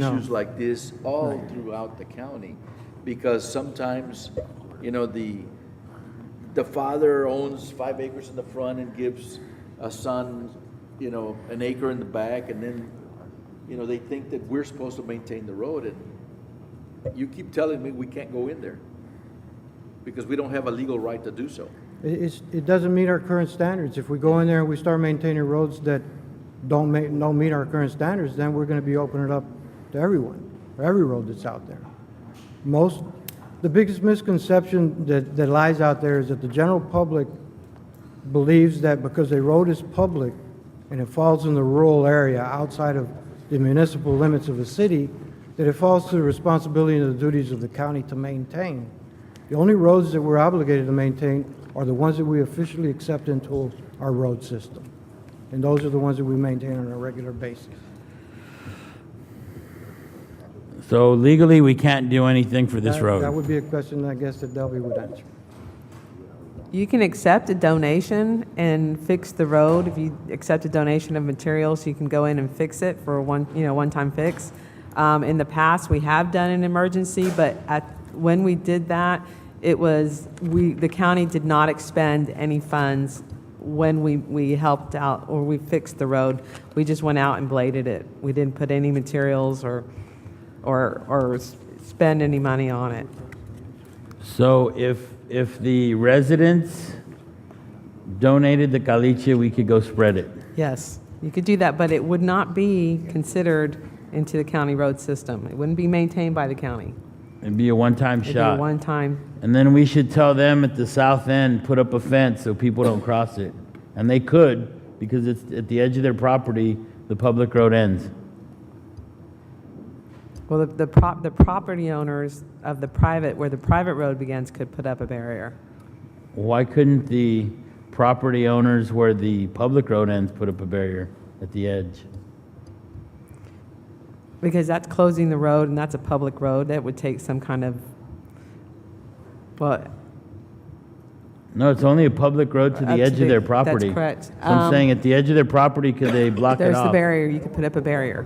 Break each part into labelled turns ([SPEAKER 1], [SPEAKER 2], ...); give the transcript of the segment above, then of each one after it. [SPEAKER 1] issues like this all throughout the county, because sometimes, you know, the, the father owns five acres in the front and gives a son, you know, an acre in the back, and then, you know, they think that we're supposed to maintain the road, and you keep telling me we can't go in there, because we don't have a legal right to do so.
[SPEAKER 2] It, it's, it doesn't meet our current standards. If we go in there and we start maintaining roads that don't ma, don't meet our current standards, then we're gonna be opening it up to everyone, for every road that's out there. Most, the biggest misconception that, that lies out there is that the general public believes that because a road is public and it falls in the rural area outside of the municipal limits of a city, that it falls to the responsibility and the duties of the county to maintain. The only roads that we're obligated to maintain are the ones that we officially accept into our road system. And those are the ones that we maintain on a regular basis.
[SPEAKER 3] So legally, we can't do anything for this
[SPEAKER 2] That- That
[SPEAKER 3] road.
[SPEAKER 2] would be a question, I guess, that Delby would answer.
[SPEAKER 4] You can accept a donation and fix the road. If you accept a donation of materials, you can go in and fix it for a one, you know, one-time fix. Um, in the past, we have done an emergency, but at, when we did that, it was, we, the county did not expend any funds when we, we helped out or we fixed the road. We just went out and bladed it. We didn't put any materials or, or, or s- spend any money on it.
[SPEAKER 3] So if, if the residents donated the caliche, we could go spread it.
[SPEAKER 4] Yes, you could do that, but it would not be considered into the county road system. It wouldn't be maintained by the county.
[SPEAKER 3] It'd be a one-time
[SPEAKER 4] It'd be a
[SPEAKER 3] shot.
[SPEAKER 4] one-time,
[SPEAKER 3] And then we should tell them at the south end, put up a fence so people don't cross it. And they could, because it's at the edge of their property, the public road ends.
[SPEAKER 4] well, the, the prop, the property owners of the private, where the private road begins could put up a barrier.
[SPEAKER 3] Why couldn't the property owners where the public road ends put up a barrier at the edge?
[SPEAKER 4] Because that's closing the road and that's a public road. That would take some kind of, well,
[SPEAKER 3] No, it's only a public road to
[SPEAKER 4] Up
[SPEAKER 3] the
[SPEAKER 4] to
[SPEAKER 3] edge
[SPEAKER 4] the-
[SPEAKER 3] of their
[SPEAKER 4] that's
[SPEAKER 3] property.
[SPEAKER 4] correct.
[SPEAKER 3] So I'm
[SPEAKER 4] Um,
[SPEAKER 3] saying at the edge of their property, could they block it
[SPEAKER 4] there's the
[SPEAKER 3] off?
[SPEAKER 4] barrier. You could put up a barrier.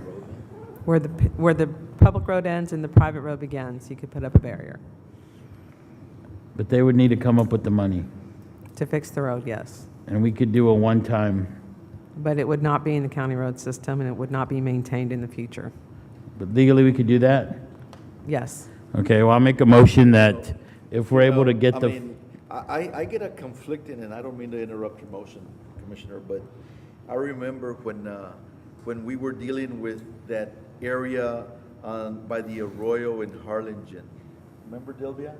[SPEAKER 4] Where the, p- where the public road ends and the private road begins, you could put up a barrier
[SPEAKER 3] But they would need to come up with the money.
[SPEAKER 4] to fix the road, yes.
[SPEAKER 3] And we could do a one-time,
[SPEAKER 4] But it would not be in the county road system, and it would not be maintained in the future.
[SPEAKER 3] but legally, we could do that?
[SPEAKER 4] Yes.
[SPEAKER 3] Okay, well, I'll make a motion that if we're able to
[SPEAKER 1] Well, Um, I
[SPEAKER 3] get the,
[SPEAKER 1] mean, I, I- I get a conflicting, and I don't mean to interrupt your motion, Commissioner, but I remember when, uh, when we were dealing with that area on, by the Arroyo in Harlingen. Remember Delvia?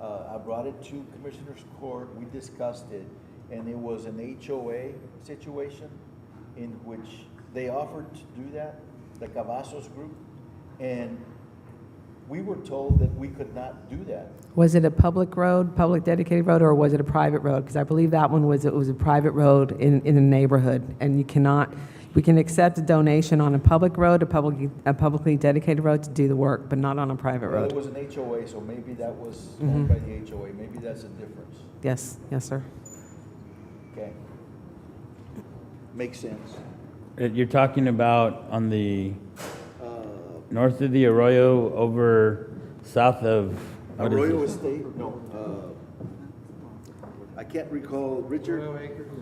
[SPEAKER 1] Uh, I brought it to Commissioner's Court, we discussed it, and it was an HOA situation in which they offered to do that, the Cavazos Group, and we were told that we could not do that.
[SPEAKER 4] Was it a public road, public dedicated road, or was it a private road? Because I believe that one was, it was a private road in, in a neighborhood, and you cannot, we can accept a donation on a public road, a publicly, a publicly dedicated road to do the work, but not on a private
[SPEAKER 1] Well, it
[SPEAKER 4] road.
[SPEAKER 1] was an HOA, so maybe that was owned by the HOA, maybe that's a difference,
[SPEAKER 4] Yes, yes, sir.
[SPEAKER 1] okay? Makes sense.
[SPEAKER 3] Uh, you're talking about on the, north of the Arroyo over south of, what is
[SPEAKER 1] Arroyo
[SPEAKER 3] this?
[SPEAKER 1] Estate, no, uh, I can't recall, Richard?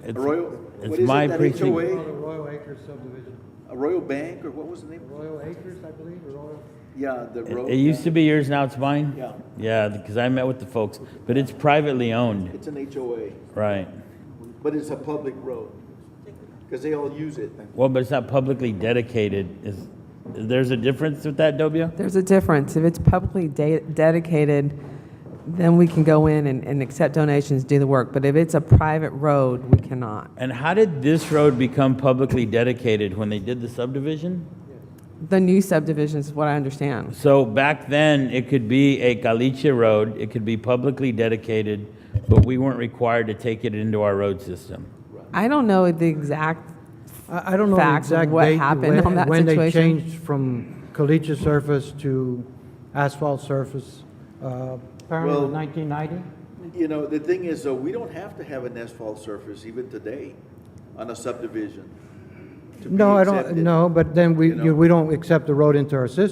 [SPEAKER 3] It's-
[SPEAKER 1] Arroyo?
[SPEAKER 3] it's
[SPEAKER 1] What is it,
[SPEAKER 3] my
[SPEAKER 1] that
[SPEAKER 3] precinct.
[SPEAKER 1] HOA?
[SPEAKER 2] Royal Acres subdivision.
[SPEAKER 1] Arroyo Bank, or what was the name?
[SPEAKER 2] Royal Acres, I believe, or Royal?
[SPEAKER 1] Yeah, the
[SPEAKER 3] It
[SPEAKER 1] road.
[SPEAKER 3] it used to be yours, now it's mine?
[SPEAKER 1] Yeah.
[SPEAKER 3] Yeah, because I met with the folks, but it's privately owned,
[SPEAKER 1] It's an HOA,
[SPEAKER 3] right?
[SPEAKER 1] but it's a public road, because they all use it.
[SPEAKER 3] Well, but it's not publicly dedicated. Is, there's a difference with that, Dobia?
[SPEAKER 4] There's a difference. If it's publicly de- dedicated, then we can go in and, and accept donations, do the work. But if it's a private road, we cannot.
[SPEAKER 3] And how did this road become publicly dedicated when they did the subdivision?
[SPEAKER 4] The new subdivisions is what I understand.
[SPEAKER 3] So back then, it could be a caliche road, it could be publicly dedicated, but we weren't required to take it into our road system.
[SPEAKER 4] I don't know the exact,
[SPEAKER 2] I, I don't know the
[SPEAKER 4] facts of
[SPEAKER 2] exact
[SPEAKER 4] what
[SPEAKER 2] date
[SPEAKER 4] happened
[SPEAKER 2] when-
[SPEAKER 4] on that
[SPEAKER 2] when they
[SPEAKER 4] situation.
[SPEAKER 2] changed from caliche surface to asphalt surface. Uh,
[SPEAKER 1] Well-
[SPEAKER 2] Apparently 1990?
[SPEAKER 1] You know, the thing is, though, we don't have to have an asphalt surface even today on a subdivision. to be
[SPEAKER 2] No, I don't,
[SPEAKER 1] accepted.
[SPEAKER 2] no, but then we,
[SPEAKER 1] you know?
[SPEAKER 2] you- we don't accept the road into our system.